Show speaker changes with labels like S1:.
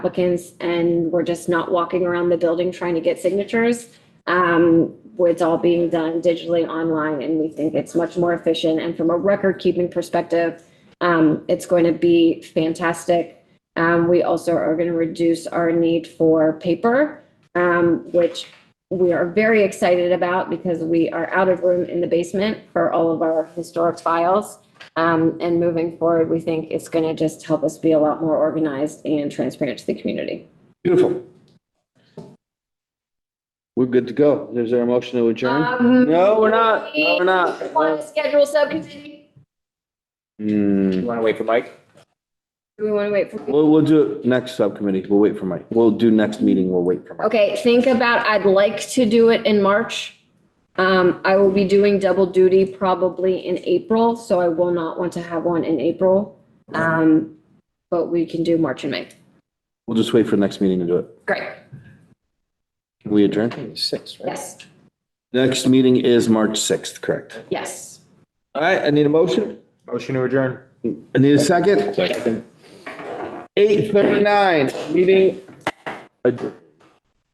S1: applicants and we're just not walking around the building trying to get signatures. Um, it's all being done digitally online and we think it's much more efficient. And from a record keeping perspective, um, it's going to be fantastic. Um, we also are going to reduce our need for paper, um, which we are very excited about because we are out of room in the basement for all of our historic files. Um, and moving forward, we think it's going to just help us be a lot more organized and transparent to the community.
S2: Beautiful. We're good to go. Is there a motion to
S1: Uh,
S2: adjourn?
S1: No,
S2: Um, we're not. No, we're not.
S1: Want to schedule subcommittee?
S2: Hmm,
S3: You want to wait for Mike?
S1: Do we want to wait for?
S2: we'll, we'll do it next subcommittee. We'll wait for Mike. We'll do next meeting. We'll wait for Mike.
S1: Okay, think about, I'd like to do it in March. Um, I will be doing double duty probably in April, so I will not want to have one in April. Um, but we can do March and May.
S2: We'll just wait for the next meeting to do it.
S1: Great,
S2: Can we adjourn?
S3: Six, right?
S1: yes,
S2: Next meeting is March 6th, correct?
S1: yes.
S2: All right, I need a motion.
S3: Motion to adjourn.
S2: I need a second. Second. 8:39, meeting adjourned.